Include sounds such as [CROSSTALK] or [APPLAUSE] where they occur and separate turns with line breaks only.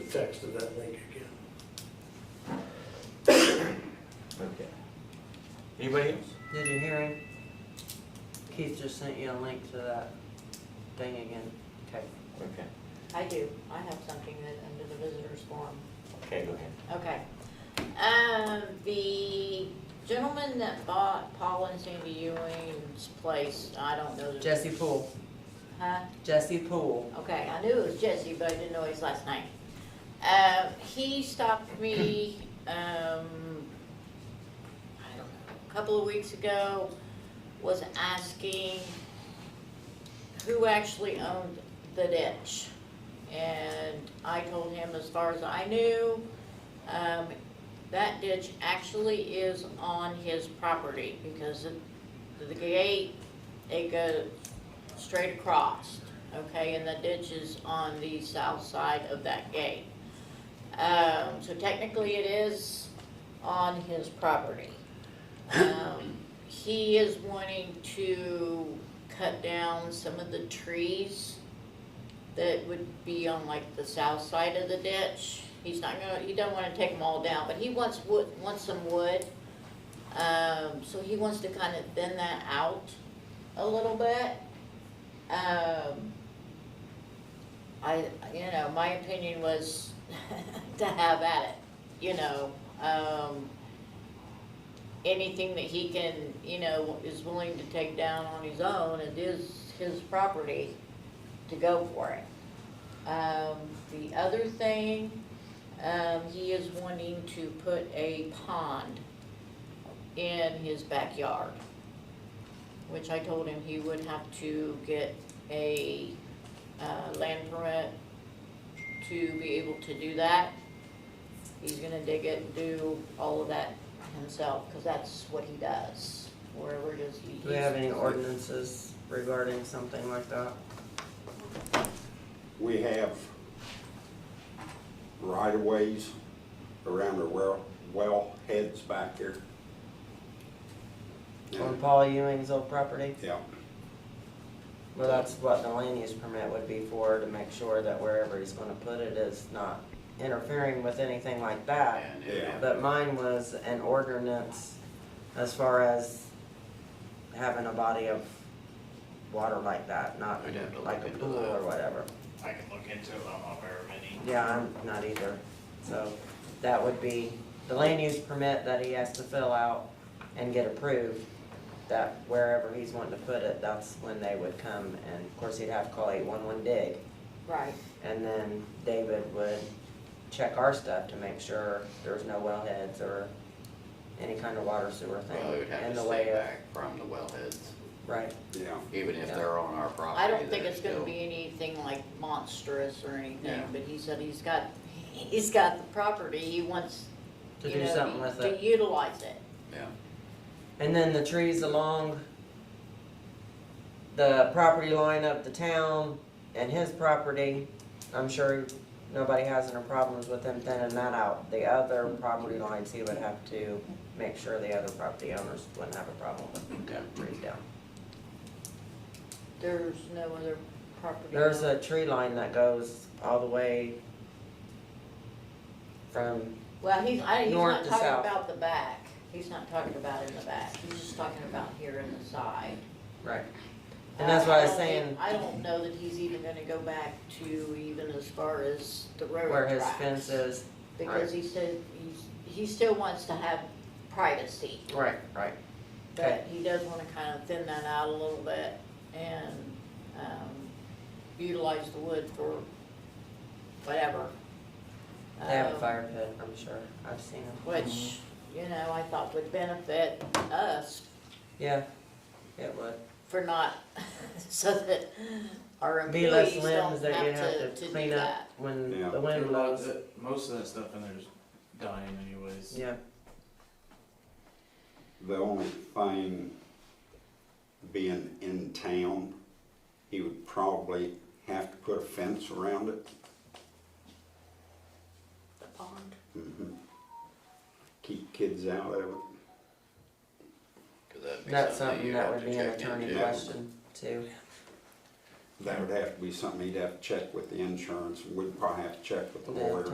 text of that link again.
Okay. Anybody else?
Did you hear him? Keith just sent you a link to that thing again. Okay.
Okay,
I do, I have something that, under the visitors forum.
okay, go ahead.
Okay. Um, the gentleman that bought Paul and Sandy Ewing's place, I don't know. the-
Jesse Poole.
Huh?
Jesse Poole.
Okay, I knew it was Jesse, but I didn't know his last name. Uh, he stopped me, um, I don't know, a couple of weeks ago, was asking who actually owned the ditch. And I told him, as far as I knew, um, that ditch actually is on his property because of the gate, it goes straight across, okay, and the ditch is on the south side of that gate. Um, so technically it is on his property. Um, he is wanting to cut down some of the trees that would be on like the south side of the ditch. He's not gonna, he doesn't wanna take them all down, but he wants wood, wants some wood. Um, so he wants to kind of thin that out a little bit. Um, I, you know, my opinion was [LAUGHS] to have at it, you know, um, anything that he can, you know, is willing to take down on his own, it is his property to go for it. Um, the other thing, um, he is wanting to put a pond in his backyard which I told him he would have to get a uh, land permit to be able to do that. He's gonna dig it and do all of that himself, because that's what he does, wherever does he.
Do we have any ordinances regarding something like that?
We have right-of-ways around the well, well heads back here.
On Paul Ewing's old property?
Yeah,
Well, that's what the land use permit would be for, to make sure that wherever he's gonna put it is not interfering with anything like that.
yeah,
But mine was an ordinance as far as having a body of water like that, not
We'd have to look
like a
into
pool
that.
or whatever.
I can look into it, I'm not very many.
Yeah, I'm not either. So that would be the land use permit that he has to fill out and get approved, that wherever he's wanting to put it, that's when they would come. And of course, he'd have to call eight-one-one dig.
Right,
And then David would check our stuff to make sure there's no wellheads or any kind of water sewer
Well, it
thing
would have
in
to
the
stay
way of.
back from the wellheads,
Right.
yeah.
even if
Yeah.
they're on our property.
I don't think
they're
it's gonna
still-
be anything like monstrous or anything,
Yeah.
but he said he's got, he's got the property, he wants,
To
you
do
know,
something with it.
To utilize it,
Yeah,
And then the trees along the property line of the town and his property, I'm sure nobody has any problems with him thinning that out. The other property lines, he would have to make sure the other property owners wouldn't have a problem with
yeah.
the trees down.
there's no other property.
There's a tree line that goes all the way from,
Well, he's, I, he's
North
not
to
talking
south.
about the back, he's not talking about in the back, he's just talking about here in the side.
right, And that's what I was
Uh, I don't
saying.
think- I don't know that he's even gonna go back to even as far as the
where
railroad
his
tracks.
fence is.
Because he said, he's, he still wants to have privacy,
Right, right.
but he does wanna kind of thin that out a little bit and, um, utilize the wood for whatever.
They have a
Um,
fire Mm-hmm. pit, I'm sure. I've seen them.
Which, you know, I thought would benefit us
Yeah, it would.
for not, [LAUGHS] so that our
Be less
employees
limbs
don't
that you
have to, to do
clean up
that.
when
Yeah.
the wind
Well,
blows.
the- Most of that stuff in there's dying anyways.
Yeah,
The only thing, being in town, he would probably have to put a fence around it.
The pond.
Mhm. Keep kids out of it.
'Cause that'd be
that's
you'd
something that
have
would
to
be an
check
attorney
into.
yeah.
question too.
That would have to be something he'd have to check with the insurance, we'd probably have to check with the
Yeah.
lawyer.